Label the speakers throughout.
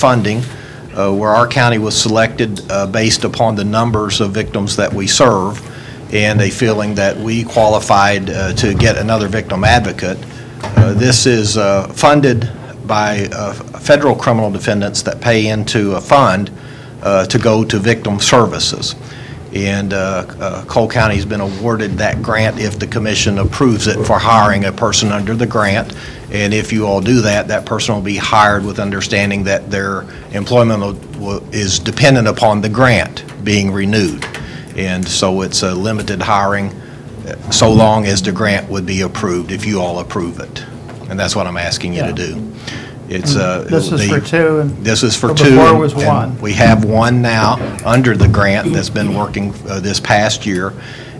Speaker 1: funding, uh, where our county was selected uh, based upon the numbers of victims that we serve, and a feeling that we qualified uh, to get another victim advocate. Uh, This is uh, funded by uh, federal criminal defendants that pay into a fund uh, to go to victim services. And uh, uh, Cole County's been awarded that grant if the commission approves it for hiring a person under the grant. And if you all do that, that person will be hired with understanding that their employment will- will- is dependent upon the grant being renewed. And so it's a limited hiring uh, so long as the grant would be approved, if you all approve it. And that's what I'm asking you to
Speaker 2: Yeah.
Speaker 1: do. It's uh, it
Speaker 2: This
Speaker 1: will
Speaker 2: is
Speaker 1: be-
Speaker 2: for two, and
Speaker 1: This is for
Speaker 2: But
Speaker 1: two.
Speaker 2: before it was
Speaker 1: and-
Speaker 2: one.
Speaker 1: We have one now under the grant that's been working uh, this past year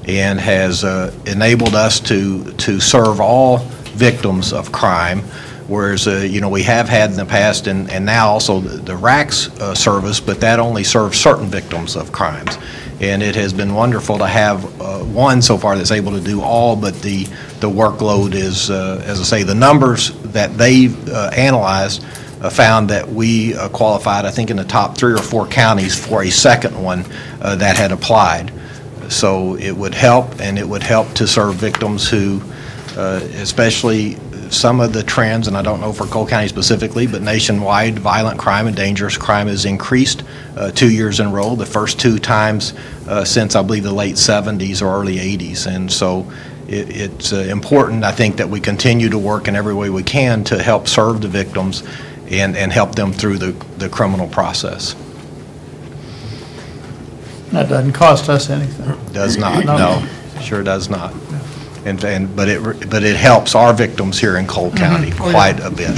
Speaker 1: and has uh, enabled us to, to serve all victims of crime, whereas, uh, you know, we have had in the past and, and now also the the RACS uh, service, but that only serves certain victims of crimes. And it has been wonderful to have uh, one so far that's able to do all, but the, the workload is, uh, as I say, the numbers that they've uh, analyzed uh, found that we uh, qualified, I think, in the top three or four counties for a second one uh, that had applied. So it would help, and it would help to serve victims who, uh, especially some of the trends, and I don't know for Cole County specifically, but nationwide, violent crime and dangerous crime has increased uh, two years in a row, the first two times uh, since, I believe, the late 70s or early 80s. And so it- it's uh, important, I think, that we continue to work in every way we can to help serve the victims and, and help them through the, the criminal process.
Speaker 2: that doesn't cost us anything.
Speaker 1: Does not,
Speaker 2: No.
Speaker 1: no, sure does not. And, and, but it, re- but it helps our victims here in Cole County quite a bit.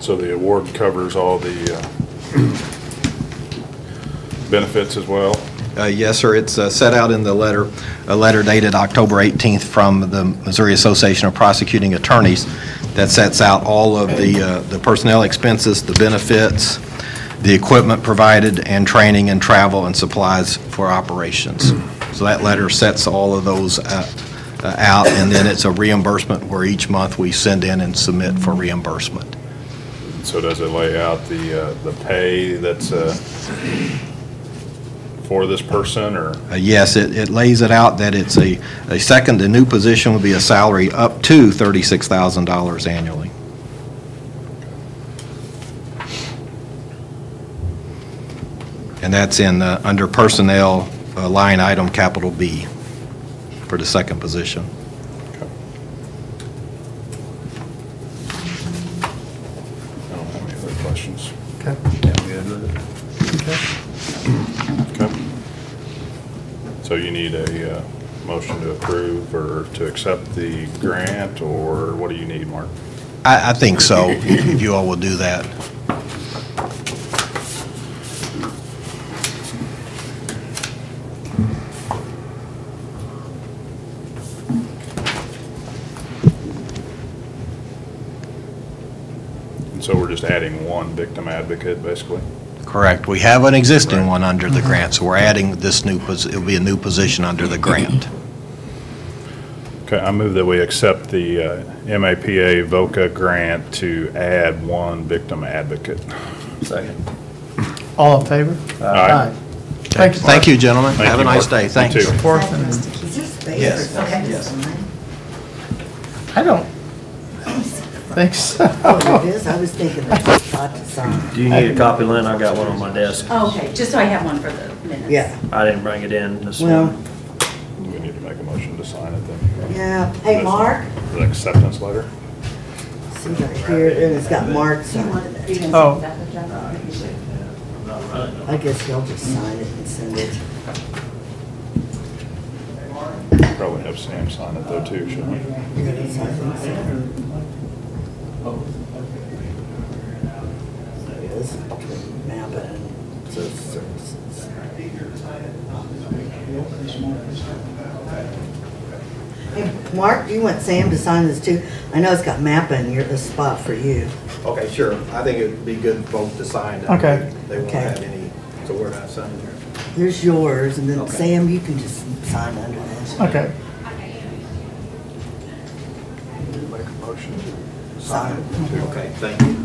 Speaker 3: So the award covers all the uh, benefits as well?
Speaker 1: Uh, Yes, sir. It's uh, set out in the letter, a letter dated October 18th from the Missouri Association of Prosecuting Attorneys that sets out all of the uh, the personnel expenses, the benefits, the equipment provided, and training and travel and supplies for operations. So that letter sets all of those uh, uh, out, and then it's a reimbursement where each month we send in and submit for reimbursement.
Speaker 3: So does it lay out the, uh, the pay that's uh, for this person, or
Speaker 1: Uh, Yes, it, it lays it out that it's a, a second, the new position would be a salary up to $36,000 annually. And that's in, uh, under personnel, uh, line item capital B for the second position.
Speaker 3: I don't have any other questions.
Speaker 2: Okay.
Speaker 3: Okay. So you need a uh, motion to approve or to accept the grant, or what do you need, Mark?
Speaker 1: I, I think so, if you all will do that.
Speaker 3: And so we're just adding one victim advocate, basically?
Speaker 1: Correct. We have an existing one under
Speaker 3: Mm-hmm.
Speaker 1: the grant, so we're adding this new, posi- it'll be a new position under the grant.
Speaker 3: Okay, I move that we accept the uh, MAPA VOCA grant to add one victim advocate.
Speaker 4: Second.
Speaker 2: All in favor? Thanks, Mark.
Speaker 1: Thank you, gentlemen.
Speaker 3: Thank
Speaker 1: Have a
Speaker 3: you,
Speaker 1: nice
Speaker 3: Mark.
Speaker 1: day.
Speaker 3: You
Speaker 1: Thanks.
Speaker 3: too.
Speaker 2: Fourth
Speaker 5: Is
Speaker 2: and,
Speaker 5: that supposed to keep us there?
Speaker 1: Yes.
Speaker 5: Okay.
Speaker 1: Yes.
Speaker 2: I don't think so.
Speaker 5: Oh, it is, I was thinking that it's hot to sign.
Speaker 4: Do you need a copy, Lynn? I got one on my desk.
Speaker 6: Okay, just so I have one for the minutes.
Speaker 5: Yeah,
Speaker 4: I didn't bring it in this
Speaker 5: Well-
Speaker 4: morning.
Speaker 3: Do we need to make a motion to sign it then?
Speaker 5: yeah. Hey, Mark,
Speaker 3: The acceptance letter?
Speaker 5: see right here, and it's got Mark's
Speaker 6: Do you
Speaker 5: on
Speaker 6: want
Speaker 5: it.
Speaker 6: to- you can
Speaker 2: Oh.
Speaker 6: send that to Jennifer?
Speaker 5: I guess you'll just sign it and send it.
Speaker 3: Probably have Sam sign it though too, shouldn't we?
Speaker 5: Yes, I think so. This is between Napa and Social Services. Hey, Mark, do you want Sam to sign this too? I know it's got Napa in here, the spot for you.
Speaker 1: Okay, sure. I think it would be good both to sign. That
Speaker 2: Okay.
Speaker 1: way They won't
Speaker 5: Okay.
Speaker 1: have any, so we're not signing there.
Speaker 5: Here's yours, and then
Speaker 1: Okay.
Speaker 5: Sam, you can just sign under this.
Speaker 2: Okay,
Speaker 3: Make a motion to
Speaker 5: Sign.
Speaker 3: it.
Speaker 1: Okay, thank you.